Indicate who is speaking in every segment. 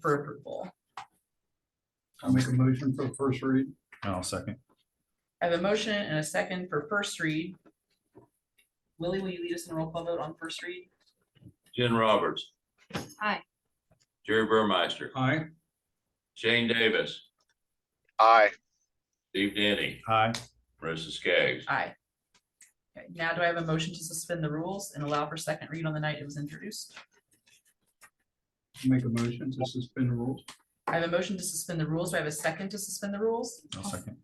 Speaker 1: for approval.
Speaker 2: I'll make a motion for the first read.
Speaker 3: I'll second.
Speaker 1: I have a motion and a second for first read. Willie, will you lead us in a roll call vote on first read?
Speaker 4: Jen Roberts.
Speaker 5: Aye.
Speaker 4: Jerry Burmeister,
Speaker 2: Aye.
Speaker 4: Shane Davis,
Speaker 6: aye,
Speaker 4: Steve Denny,
Speaker 3: Aye.
Speaker 4: Marissa Skaggs.
Speaker 1: Aye. Okay, now do I have a motion to suspend the rules and allow for second read on the night it was introduced?
Speaker 2: Make a motion to suspend the rules.
Speaker 1: I have a motion to suspend the rules. Do I have a second to suspend the rules?
Speaker 3: I'll second.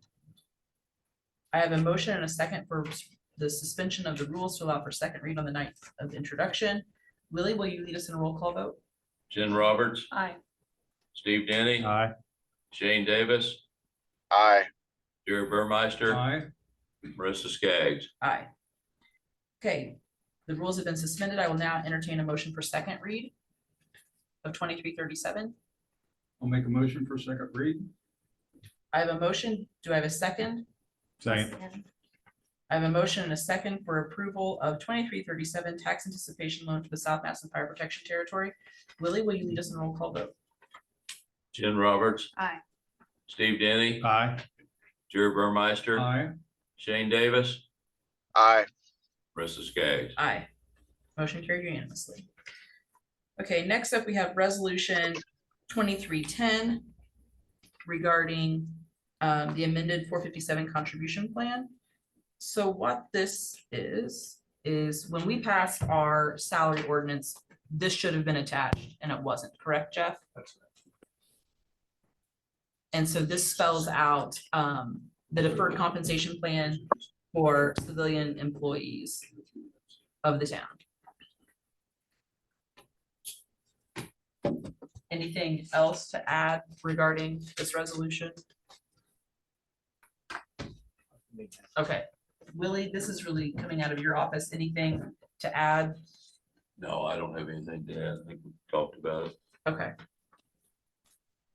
Speaker 1: I have a motion and a second for the suspension of the rules to allow for second read on the night of introduction. Willie, will you lead us in a roll call vote?
Speaker 4: Jen Roberts,
Speaker 1: Aye.
Speaker 4: Steve Denny,
Speaker 3: Aye.
Speaker 4: Shane Davis,
Speaker 6: aye,
Speaker 4: Jerry Burmeister,
Speaker 2: Aye.
Speaker 4: Marissa Skaggs.
Speaker 1: Aye. Okay, the rules have been suspended. I will now entertain a motion for second read of twenty-three thirty-seven.
Speaker 2: I'll make a motion for second read.
Speaker 1: I have a motion. Do I have a second?
Speaker 3: Second.
Speaker 1: I have a motion and a second for approval of twenty-three thirty-seven tax anticipation loan to the South Madison Fire Protection Territory. Willie, will you lead us in a roll call vote?
Speaker 4: Jen Roberts.
Speaker 5: Aye.
Speaker 4: Steve Denny,
Speaker 3: Aye.
Speaker 4: Jerry Burmeister,
Speaker 2: Aye.
Speaker 4: Shane Davis,
Speaker 6: aye,
Speaker 4: Marissa Skaggs.
Speaker 1: Aye. Motion carried unanimously. Okay, next up, we have resolution twenty-three ten regarding um, the amended four fifty-seven contribution plan. So what this is, is when we passed our salary ordinance, this should have been attached and it wasn't, correct, Jeff? And so this spells out um, the deferred compensation plan for civilian employees of the town. Anything else to add regarding this resolution? Okay, Willie, this is really coming out of your office. Anything to add?
Speaker 4: No, I don't have anything to add. I think we talked about it.
Speaker 1: Okay.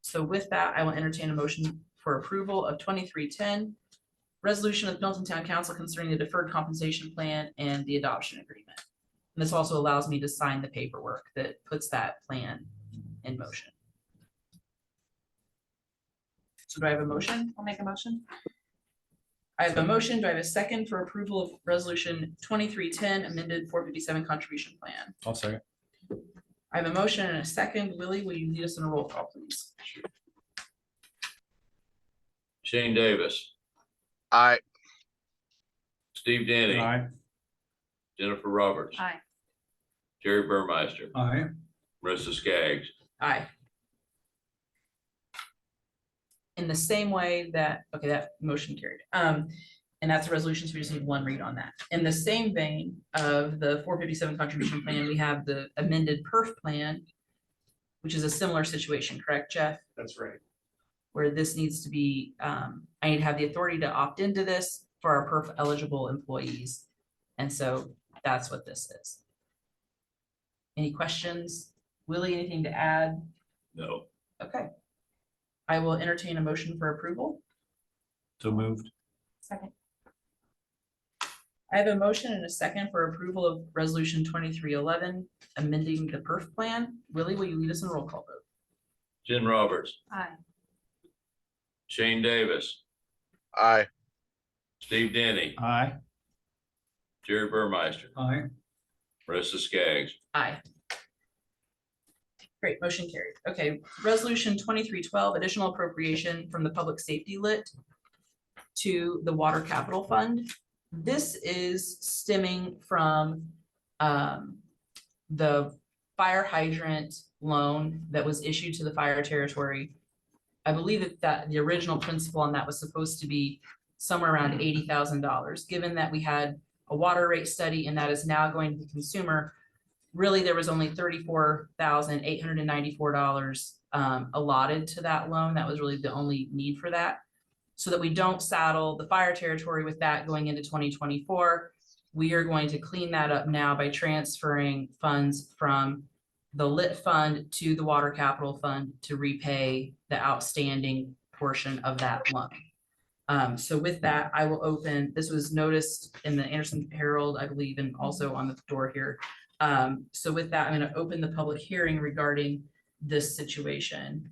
Speaker 1: So with that, I will entertain a motion for approval of twenty-three ten. Resolution of Milton Town Council concerning the deferred compensation plan and the adoption agreement. And this also allows me to sign the paperwork that puts that plan in motion. So do I have a motion?
Speaker 5: I'll make a motion.
Speaker 1: I have a motion. Do I have a second for approval of resolution twenty-three ten amended four fifty-seven contribution plan?
Speaker 3: I'll second.
Speaker 1: I have a motion and a second. Willie, will you lead us in a roll call, please?
Speaker 4: Shane Davis,
Speaker 6: aye,
Speaker 4: Steve Denny,
Speaker 3: Aye.
Speaker 4: Jennifer Roberts,
Speaker 5: Aye.
Speaker 4: Jerry Burmeister,
Speaker 2: Aye.
Speaker 4: Marissa Skaggs.
Speaker 1: Aye. In the same way that, okay, that motion carried. Um, and that's a resolution, so we just need one read on that. In the same vein of the four fifty-seven contribution plan, we have the amended perf plan, which is a similar situation, correct, Jeff?
Speaker 2: That's right.
Speaker 1: Where this needs to be, um, I need to have the authority to opt into this for our perf eligible employees. And so that's what this is. Any questions? Willie, anything to add?
Speaker 4: No,
Speaker 1: Okay. I will entertain a motion for approval.
Speaker 3: So moved.
Speaker 5: Second.
Speaker 1: I have a motion and a second for approval of resolution twenty-three eleven, amending the perf plan. Willie, will you lead us in a roll call vote?
Speaker 4: Jen Roberts,
Speaker 5: Aye.
Speaker 4: Shane Davis,
Speaker 6: aye,
Speaker 4: Steve Denny,
Speaker 3: Aye.
Speaker 4: Jerry Burmeister,
Speaker 2: Aye.
Speaker 4: Marissa Skaggs.
Speaker 1: Aye. Great, motion carried. Okay, resolution twenty-three twelve, additional appropriation from the public safety lit to the water capital fund. This is stemming from um, the fire hydrant loan that was issued to the fire territory. I believe that that the original principal on that was supposed to be somewhere around eighty thousand dollars, given that we had a water rate study and that is now going to the consumer really, there was only thirty-four thousand eight hundred and ninety-four dollars um, allotted to that loan. That was really the only need for that. So that we don't saddle the fire territory with that going into twenty twenty-four. We are going to clean that up now by transferring funds from the lit fund to the water capital fund to repay the outstanding portion of that loan. Um, so with that, I will open, this was noticed in the Anderson Herald, I believe, and also on the door here. Um, so with that, I'm gonna open the public hearing regarding this situation.